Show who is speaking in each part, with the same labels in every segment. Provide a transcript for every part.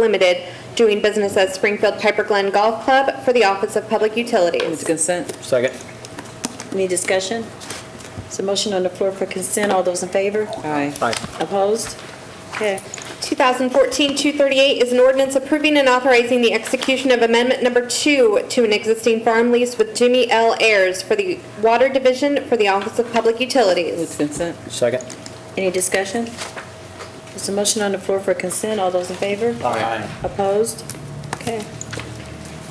Speaker 1: Limited, doing business as Springfield Piper Glen Golf Club for the Office of Public
Speaker 2: Move to
Speaker 1: Utilities.
Speaker 2: consent.
Speaker 3: Second.
Speaker 4: Any discussion? It's a motion on the floor for consent. All those in favor?
Speaker 2: Aye.
Speaker 3: Aye.
Speaker 4: Opposed? Okay.
Speaker 1: 2014-238 is an ordinance approving and authorizing the execution of Amendment Number Two to an existing farm lease with Jimmy L. Ayers for the Water Division for the Office of Public
Speaker 2: Move to
Speaker 1: Utilities.
Speaker 2: consent.
Speaker 3: Second.
Speaker 4: Any discussion? It's a motion on the floor for consent. All those in favor? Opposed? Okay.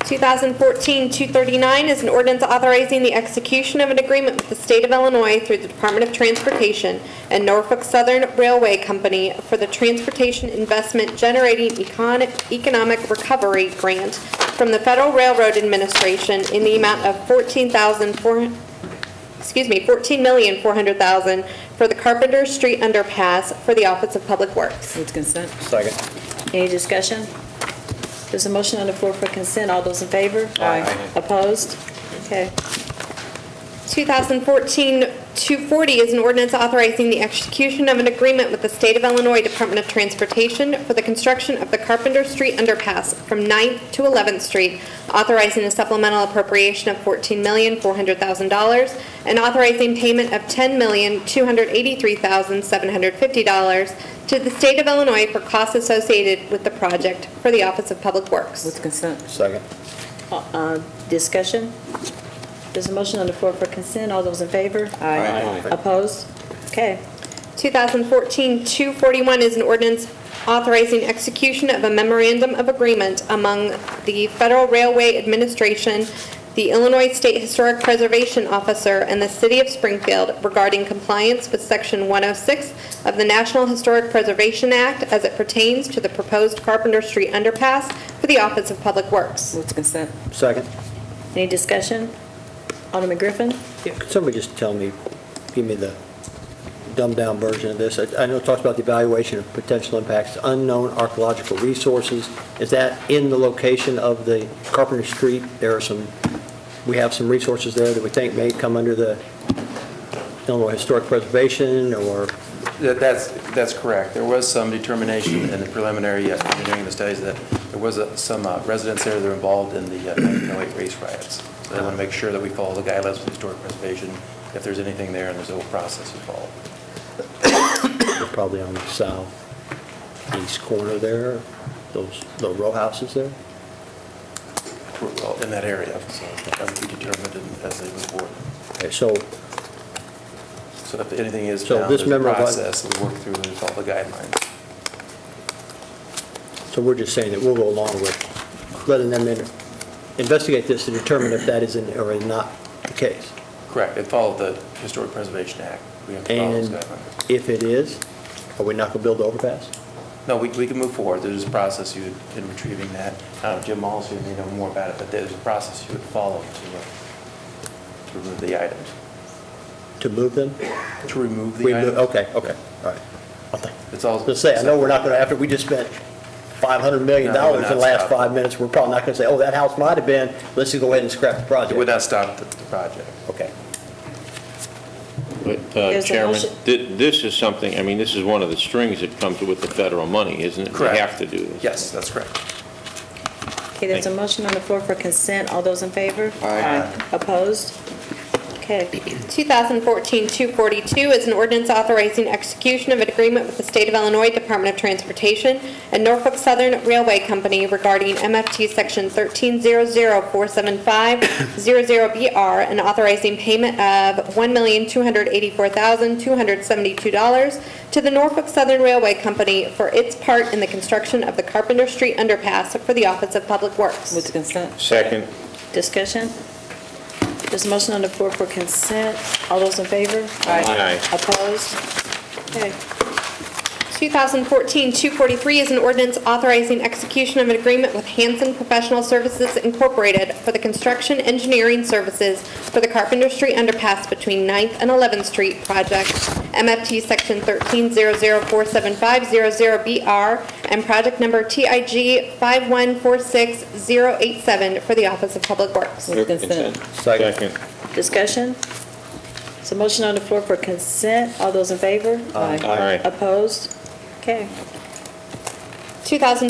Speaker 1: 2014-239 is an ordinance authorizing the execution of an agreement with the State of Illinois through the Department of Transportation and Norfolk Southern Railway Company for the Transportation Investment Generating Econ- Economic Recovery Grant from the Federal Railroad Administration in the amount of $14,400, excuse me, $14,400,000 for the Carpenter Street Underpass for the Office of Public Works.
Speaker 2: Move to consent.
Speaker 3: Second.
Speaker 4: Any discussion? There's a motion on the floor for consent. All those in favor?
Speaker 2: Aye.
Speaker 4: Opposed? Okay.
Speaker 1: 2014-240 is an ordinance authorizing the execution of an agreement with the State of Illinois Department of Transportation for the construction of the Carpenter Street Underpass from 9th to 11th Street, authorizing a supplemental appropriation of $14,400,000 and authorizing payment of $10,283,750 to the State of Illinois for costs associated with the project for the Office of Public Works.
Speaker 2: Move to consent.
Speaker 3: Second.
Speaker 4: Uh, Discussion? There's a motion on the floor for consent. All those in favor?
Speaker 3: Aye. Aye.
Speaker 4: Opposed? Okay.
Speaker 1: 2014-241 is an ordinance authorizing execution of a memorandum of agreement among the Federal Railway Administration, the Illinois State Historic Preservation Officer, and the City of Springfield regarding compliance with Section 106 of the National Historic Preservation Act as it pertains to the proposed Carpenter Street underpass for the Office of Public Works.
Speaker 2: Move to consent.
Speaker 3: Second.
Speaker 4: Any discussion? Alderman Griffin?
Speaker 3: Yeah, Could somebody just tell me, give me the dumbed-down version of this? I I know it talks about the evaluation of potential impacts, unknown archaeological resources. Is that in the location of the Carpenter Street? There are some, we have some resources there that we think may come under the Illinois Historic Preservation or
Speaker 5: That- That's, that's correct. There was some determination in the preliminary uh, engineering of the studies that there was uh, some uh, residents there that were involved in the uh, 1908 race riots. So they want to make sure that we follow the guidelines with historic preservation, if there's anything there, and there's a whole process involved.
Speaker 3: they're probably on the southeast corner there, those little row houses there?
Speaker 5: We're all in that area, so that would be determined in- as they move forward.
Speaker 3: Okay, so
Speaker 5: So if anything is
Speaker 3: So
Speaker 5: found,
Speaker 3: this
Speaker 5: there's a
Speaker 3: member of-
Speaker 5: process, we work through and follow the guidelines.
Speaker 3: So we're just saying that we'll go along with letting them in- investigate this to determine if that is in- or is not the case.
Speaker 5: Correct, and follow the Historic Preservation Act. We have to follow those
Speaker 3: And
Speaker 5: guidelines.
Speaker 3: if it is, are we not going to build the overpass?
Speaker 5: No, we, we can move forward. There's a process you, would- in retrieving that. Uh, Jim Malls, you may know more about it, but there's a process you would follow to, uh, to remove the items.
Speaker 3: To move them?
Speaker 5: To remove
Speaker 3: We
Speaker 5: the
Speaker 3: move-
Speaker 5: items?
Speaker 3: Okay, okay, all right. I'll think.
Speaker 5: It's all.
Speaker 3: Let's say, I know we're not going to, after we just spent $500 million
Speaker 5: No, we're
Speaker 3: in
Speaker 5: not
Speaker 3: the last
Speaker 5: stopping.
Speaker 3: five minutes, we're probably not going to say, oh, that house might have been, let's just go ahead and scrap the
Speaker 5: It
Speaker 3: project.
Speaker 5: would not stop the, the project.
Speaker 3: Okay.
Speaker 6: But, uh,
Speaker 4: There's a
Speaker 6: Chairman,
Speaker 4: motion-
Speaker 6: thi- this is something, I mean, this is one of the strings that comes with the federal money, isn't it?
Speaker 5: Correct.
Speaker 6: We have to do this.
Speaker 5: Yes, that's correct.
Speaker 4: Okay, there's a motion on the floor for consent. All those in favor? Aye. Opposed? Okay.
Speaker 1: 2014-242 is an ordinance authorizing execution of an agreement with the State of Illinois Department of Transportation and Norfolk Southern Railway Company regarding MFT Section 1300475-00BR and authorizing payment of $1,284,272 to the Norfolk Southern Railway Company for its part in the construction of the Carpenter Street Underpass for the Office of Public Works.
Speaker 2: Move to consent.
Speaker 6: Second.
Speaker 4: Discussion? There's a motion on the floor for consent. All those in favor?
Speaker 6: Aye.
Speaker 4: Opposed? Okay.
Speaker 1: 2014-243 is an ordinance authorizing execution of an agreement with Hanson Professional Services Incorporated for the construction engineering services for the Carpenter Street Underpass between 9th and 11th Street project, MFT Section 130047500BR, and project number TIG 5146087 for the Office of Public Works.
Speaker 2: Move to consent.
Speaker 3: Second.
Speaker 6: Second.
Speaker 4: Discussion? There's a motion on the floor for consent. All those in favor?
Speaker 6: Aye.
Speaker 4: Opposed? Okay.
Speaker 1: 2014